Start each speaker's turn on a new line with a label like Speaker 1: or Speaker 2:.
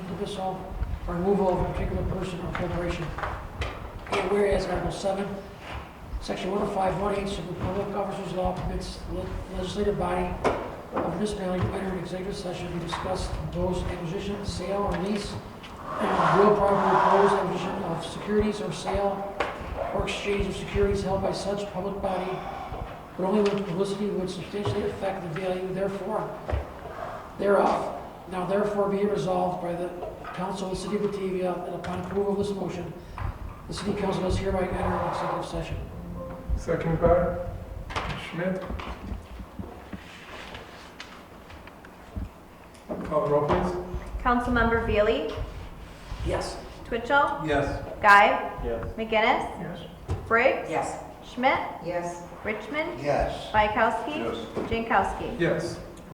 Speaker 1: dismissal or removal of a particular person or corporation. And whereas Article 7, Section 1051H of the Public Officers Law permits le- legislative body of municipality to enter an executive session to discuss proposed acquisition, sale, or lease, and real property proposed acquisition of securities or sale or exchange of securities held by such public body, but only when publicity would substantially affect the value therefore thereof. Now therefore be resolved by the council of the city of Batavia that upon approval of this motion, the city council does hereby enter an executive session.
Speaker 2: Second by Schmidt. Call the roll, please.
Speaker 3: Councilmember Veely,
Speaker 1: Yes.
Speaker 3: Twitchell,
Speaker 2: Yes.
Speaker 3: Guy,
Speaker 4: Yes.
Speaker 3: McGinnis,
Speaker 2: Yes.
Speaker 3: Briggs,
Speaker 5: Yes.
Speaker 3: Schmidt,
Speaker 5: Yes.
Speaker 3: Richmond,
Speaker 4: Yes.
Speaker 3: Bykowski,
Speaker 4: Yes.
Speaker 3: Jankowski.
Speaker 2: Yes.